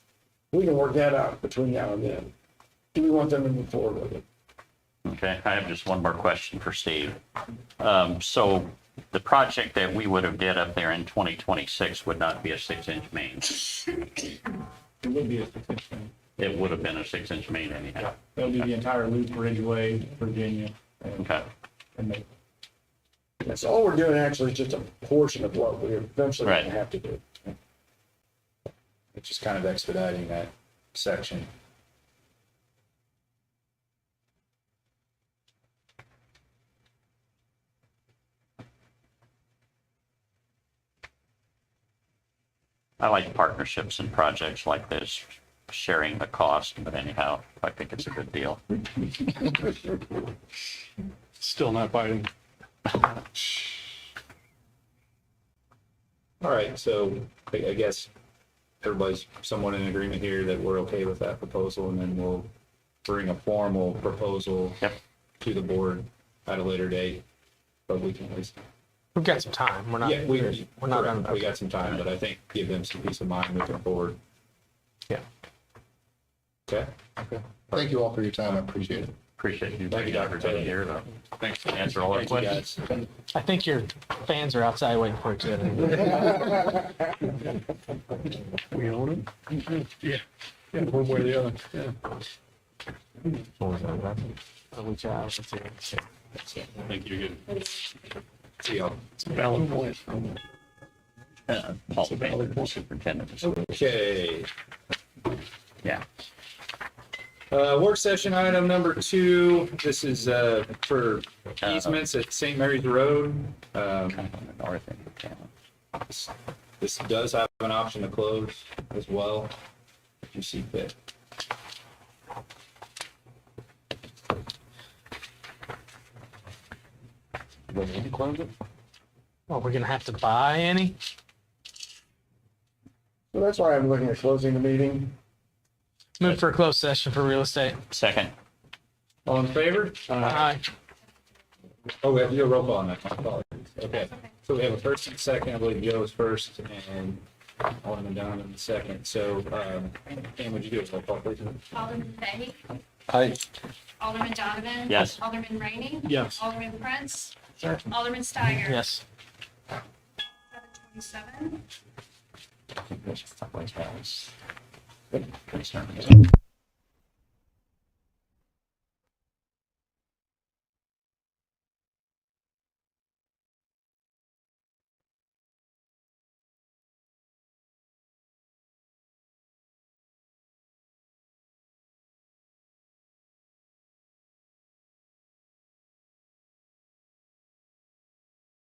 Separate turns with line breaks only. We can work that out between now and then. Do we want them to move forward with it?
Okay, I have just one more question for Steve. Um, So the project that we would have did up there in 2026 would not be a six-inch main.
It would be a petition.
It would have been a six-inch main anyhow.
That'll be the entire loop, Ridgeway, Virginia, and,
Okay,
and the
And So all we're doing actually is just a portion of what we're eventually gonna
Right.
have to do.
It's just kind of expediting that section.
I like partnerships and projects like this, sharing the cost, but anyhow, I think it's a good deal.
Still not biting.
All right, so I, I guess everybody's somewhat in agreement here that we're okay with that proposal, and then we'll bring a formal proposal
Yep.
to the board at a later date, but we can at least,
We've got some time. We're not.
yeah, we,
We're not
correct,
done.
we got some time, but I think give them some peace of mind moving forward.
Yeah.
Okay?
Thank you all for your time. I appreciate it.
Appreciate you
Thank
bringing
you, Dr.
everybody here
Taylor.
to
Thanks.
answer all our
Thank you,
questions.
guys.
I think your fans are outside waiting for it.
We own it? Mm-hmm. Yeah. Yeah, one way or the other, yeah.
Which I was considering.
Thank you again.
See y'all.
It's a valid point.
Uh, Paul Bailey, the superintendent. of schools.
Okay.
Yeah.
Uh, work session item number two, this is, uh, for easements at St. Mary's Road. Um,
Kind of on the north end of town.
this- this does have an option to close as well, if you see fit.
Well, we're gonna have to buy any.
So that's why I'm looking at closing the meeting.
Move for a closed session for real estate.
Second,
All in favor?
Uh-huh.
Aye.
Oh, we have to do a roll call on that, my apologies. Okay, so we have a first and second, I believe Joe is first and Alderman Donovan is second. So, um, Pam, would you do a roll call, please?
Alderman Fahy.
Hi.
Alderman Donovan.
Yes.
Alderman Rainey.
Yes.
Alderman Prince. Alderman Steiger.
Yes.
Seven twenty-seven.
Concern.